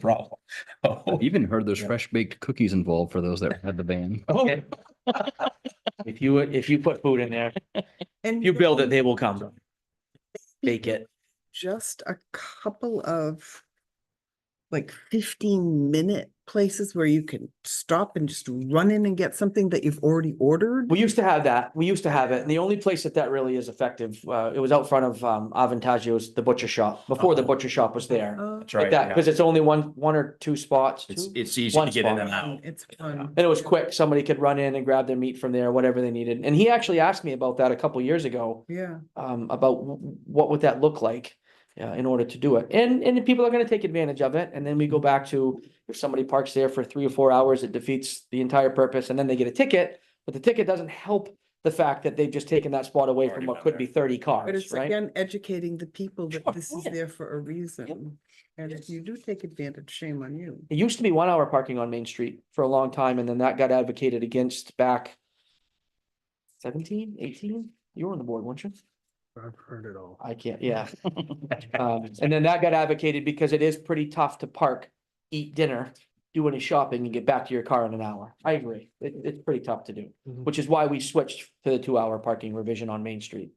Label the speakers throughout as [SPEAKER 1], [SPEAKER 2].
[SPEAKER 1] problem. Oh,
[SPEAKER 2] Even heard there's
[SPEAKER 1] Yeah.
[SPEAKER 2] fresh baked cookies involved for those that had the van.
[SPEAKER 1] okay. If you, if you put food in there,
[SPEAKER 3] And
[SPEAKER 1] you build it,
[SPEAKER 3] then
[SPEAKER 1] they will come. Bake it.
[SPEAKER 3] Just a couple of like fifteen minute places where you can stop and just run in and get something that you've already ordered.
[SPEAKER 1] We used to have that. We used to have it. And the only place that that really is effective, uh, it was out front of, um, Avantagio's, the butcher shop, before the
[SPEAKER 4] Uh-oh.
[SPEAKER 1] butcher shop was there.
[SPEAKER 3] Oh,
[SPEAKER 4] That's
[SPEAKER 1] Like
[SPEAKER 4] right.
[SPEAKER 1] that,
[SPEAKER 4] yeah.
[SPEAKER 1] because it's only one, one or two spots.
[SPEAKER 4] It's, e-
[SPEAKER 1] two?
[SPEAKER 4] it's easy
[SPEAKER 1] one
[SPEAKER 4] to get in
[SPEAKER 1] spot.
[SPEAKER 4] and out.
[SPEAKER 3] It's fun.
[SPEAKER 1] And it was quick. Somebody could run in and grab their meat from there, whatever they needed. And he actually asked me about that a couple years ago,
[SPEAKER 3] Yeah,
[SPEAKER 1] um, about w- w- what would that look like uh, in order to do it. And, and the people are gonna take advantage of it. And then we go back to if somebody parks there for three or four hours, it defeats the entire purpose and then they get a ticket. But the ticket doesn't help the fact that they've just taken that spot away from
[SPEAKER 4] Already
[SPEAKER 1] what
[SPEAKER 4] been
[SPEAKER 1] could be thirty
[SPEAKER 3] but
[SPEAKER 1] cars,
[SPEAKER 3] it's
[SPEAKER 1] right?
[SPEAKER 3] again, educating the people that
[SPEAKER 1] Sure,
[SPEAKER 3] this is
[SPEAKER 1] yeah.
[SPEAKER 3] there for a reason. And if
[SPEAKER 1] Yes.
[SPEAKER 3] you do take advantage, shame on you.
[SPEAKER 1] It used to be one hour parking on Main Street for a long time and then that got advocated against back 17, 18. You were on the board, weren't you?
[SPEAKER 5] I've heard it all.
[SPEAKER 1] I can't, yeah. Um, and then that got advocated because it is pretty tough to park, eat dinner, do any shopping and get back to your car in an hour. I agree. It, it's pretty tough to do,
[SPEAKER 5] Mhm.
[SPEAKER 1] which is why we switched to the two hour parking revision on Main Street.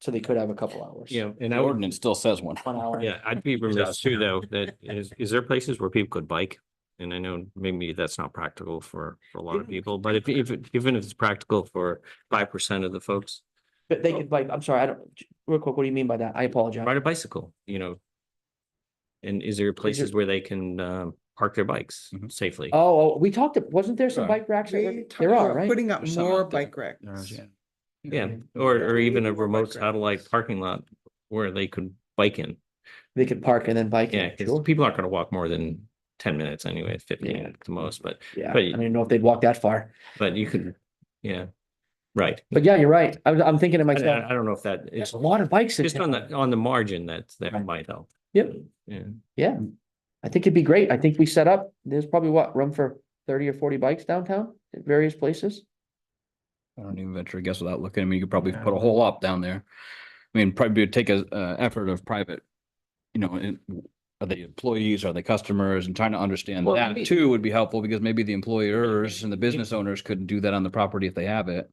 [SPEAKER 1] So they could have a couple hours.
[SPEAKER 6] Yeah, and
[SPEAKER 2] The
[SPEAKER 6] I would,
[SPEAKER 2] ordinance still says one.
[SPEAKER 1] One hour.
[SPEAKER 6] yeah, I'd be remiss too, though, that is, is there places where people could bike? And I know maybe that's not practical for, for a lot of people, but if, if, it- even if it's practical for five percent of the folks,
[SPEAKER 1] But they could like, I'm sorry, I don't, real quick, what do you mean by that? I apologize.
[SPEAKER 6] ride a bicycle, you know? And is there Mm-hmm. places where they can, um, park their bikes
[SPEAKER 2] Mhm.
[SPEAKER 6] safely?
[SPEAKER 1] Oh, oh, we talked, wasn't there some
[SPEAKER 2] Sure.
[SPEAKER 1] bike racks? that
[SPEAKER 3] We
[SPEAKER 1] were-
[SPEAKER 3] talked
[SPEAKER 1] There are,
[SPEAKER 3] about
[SPEAKER 1] right?
[SPEAKER 3] Putting up
[SPEAKER 2] There's some
[SPEAKER 3] more
[SPEAKER 2] out there.
[SPEAKER 3] bike racks.
[SPEAKER 6] Yeah, or, or even a remote satellite parking lot where they could bike in.
[SPEAKER 1] They could park and then bike.
[SPEAKER 6] Yeah,
[SPEAKER 1] in,
[SPEAKER 6] because
[SPEAKER 1] sure.
[SPEAKER 6] people aren't gonna walk more than ten minutes anyway, fifteen
[SPEAKER 1] Yeah.
[SPEAKER 6] at the most, but,
[SPEAKER 1] Yeah, I
[SPEAKER 6] but-
[SPEAKER 1] don't even know if they'd walk that far.
[SPEAKER 6] but you could, yeah. Right.
[SPEAKER 1] But yeah, you're right. I'm, I'm thinking to
[SPEAKER 6] I,
[SPEAKER 1] myself,
[SPEAKER 6] I I don't know if that
[SPEAKER 1] there's
[SPEAKER 6] is
[SPEAKER 1] a lot of bikes. in
[SPEAKER 6] just on
[SPEAKER 1] town.
[SPEAKER 6] the, on the margin that, that
[SPEAKER 1] Right.
[SPEAKER 6] might help.
[SPEAKER 1] Yep.
[SPEAKER 6] Yeah.
[SPEAKER 1] Yeah, I think it'd be great. I think we set up, there's probably what, room for thirty or forty bikes downtown at various places?
[SPEAKER 2] I don't even venture a guess without looking. I mean, you could probably put a whole lot down there. I mean, probably take a, uh, effort of private, you know, in- are they employees, are they customers? And trying to understand
[SPEAKER 1] Well,
[SPEAKER 2] that
[SPEAKER 1] maybe-
[SPEAKER 2] too would be helpful because maybe the employers and the business owners couldn't do that on the property if they have it.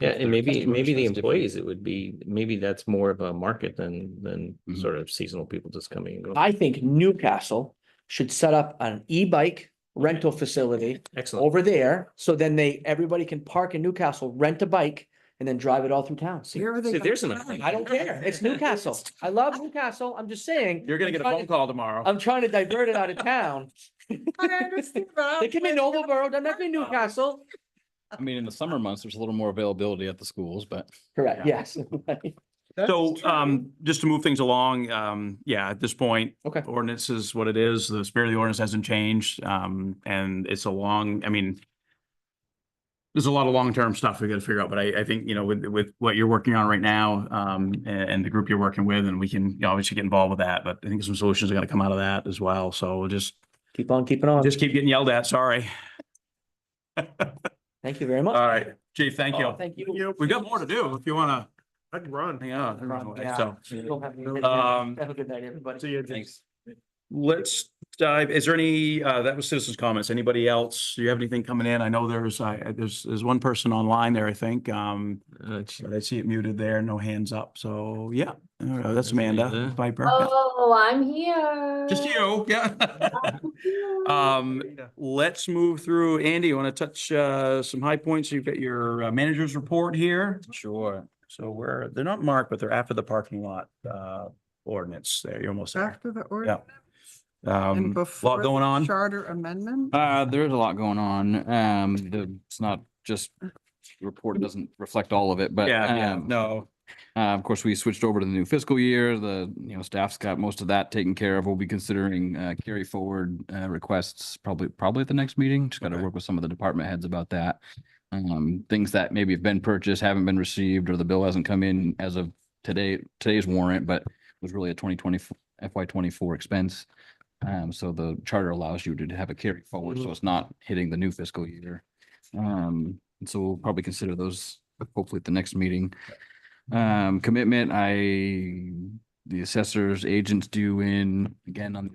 [SPEAKER 6] Yeah,
[SPEAKER 2] If they're
[SPEAKER 6] and maybe,
[SPEAKER 2] customers,
[SPEAKER 6] maybe the
[SPEAKER 2] that's different.
[SPEAKER 6] employees, it would be, maybe that's more of a market than, than
[SPEAKER 2] Mhm.
[SPEAKER 6] sort of seasonal people just coming and going.
[SPEAKER 1] I think Newcastle should set up an e-bike rental facility
[SPEAKER 6] Excellent.
[SPEAKER 1] over there. So then they, everybody can park in Newcastle, rent a bike and then drive it all through town. See,
[SPEAKER 3] Where are they?
[SPEAKER 6] See,
[SPEAKER 3] gonna
[SPEAKER 6] there's an
[SPEAKER 3] park?
[SPEAKER 6] idea.
[SPEAKER 1] I don't care. It's Newcastle. I love Newcastle. I'm just saying.
[SPEAKER 2] You're
[SPEAKER 1] I'm
[SPEAKER 2] gonna get a
[SPEAKER 1] trying
[SPEAKER 2] phone
[SPEAKER 1] to-
[SPEAKER 2] call tomorrow.
[SPEAKER 1] I'm trying to divert it out of town.
[SPEAKER 3] I understand, but I
[SPEAKER 1] They
[SPEAKER 3] don't
[SPEAKER 1] can be
[SPEAKER 3] plan to go
[SPEAKER 1] Noblesboro, doesn't have to be Newcastle.
[SPEAKER 2] I mean, in the summer months, there's a little more availability at the schools, but.
[SPEAKER 1] Correct, yes.
[SPEAKER 3] That's
[SPEAKER 4] So,
[SPEAKER 3] true.
[SPEAKER 4] um, just to move things along, um, yeah, at this point.
[SPEAKER 1] Okay.
[SPEAKER 4] Ordinance is what it is. The spirit of the ordinance hasn't changed. Um, and it's a long, I mean, there's a lot of long-term stuff we gotta figure out, but I, I think, you know, with, with what you're working on right now, um, a- and, the group you're working with, and we can you know, obviously get involved with that, but I think some solutions are gonna come out of that as well. So we'll just,
[SPEAKER 1] Keep on keeping on.
[SPEAKER 4] just keep getting yelled at, sorry.
[SPEAKER 1] Thank you very much.
[SPEAKER 4] All right, chief, thank you.
[SPEAKER 1] Oh, Thank you.
[SPEAKER 4] We've got more to do if you wanna
[SPEAKER 5] I'd run.
[SPEAKER 4] hang on.
[SPEAKER 1] Yeah.
[SPEAKER 4] So.
[SPEAKER 1] You'll have me-
[SPEAKER 4] Um,
[SPEAKER 1] Have a good night, everybody.
[SPEAKER 5] See you.
[SPEAKER 2] Thanks.
[SPEAKER 4] Let's dive, is there any, uh, that was citizens' comments. Anybody else? Do you have anything coming in? I know there's, I, there's, there's one person online there, I think. Um,
[SPEAKER 6] Uh, sh-
[SPEAKER 4] but I see it muted there, no hands up. So, yeah, I don't know. that's
[SPEAKER 6] That's
[SPEAKER 4] Amanda
[SPEAKER 6] Amanda.
[SPEAKER 4] Viper.
[SPEAKER 7] Oh, I'm here.
[SPEAKER 4] Just you, yeah. Um, let's move through. Andy, you want to touch, uh, some high points? You've got your uh, manager's report here.
[SPEAKER 2] Sure.
[SPEAKER 4] So we're, they're not marked, but they're after the parking lot, uh, ordinance there. You're almost there.
[SPEAKER 3] After the ordinance
[SPEAKER 4] Um,
[SPEAKER 3] and
[SPEAKER 4] lot
[SPEAKER 3] before
[SPEAKER 4] going
[SPEAKER 3] the
[SPEAKER 4] on.
[SPEAKER 3] charter amendment?
[SPEAKER 2] Uh, there's a lot going on. Um, the, it's not just the report doesn't reflect all of it, but.
[SPEAKER 4] Yeah, yeah,
[SPEAKER 2] um,
[SPEAKER 4] no.
[SPEAKER 2] Uh, of course, we switched over to the new fiscal year. The, you know, staff's got most of that taken care of. We'll be considering, uh, carry forward, uh, requests probably, probably at the next meeting. Just gotta
[SPEAKER 4] Okay.
[SPEAKER 2] work with some of the department heads about that. Um, things that maybe have been purchased, haven't been received, or the bill hasn't come in as of today, today's warrant, but was really a twenty twenty FY twenty-four expense. Um, so the charter allows you to have a carry forward, so it's not hitting the new fiscal year. Um, and so we'll probably consider those hopefully at the next meeting. Um, commitment, I the assessor's agents do in, again, on the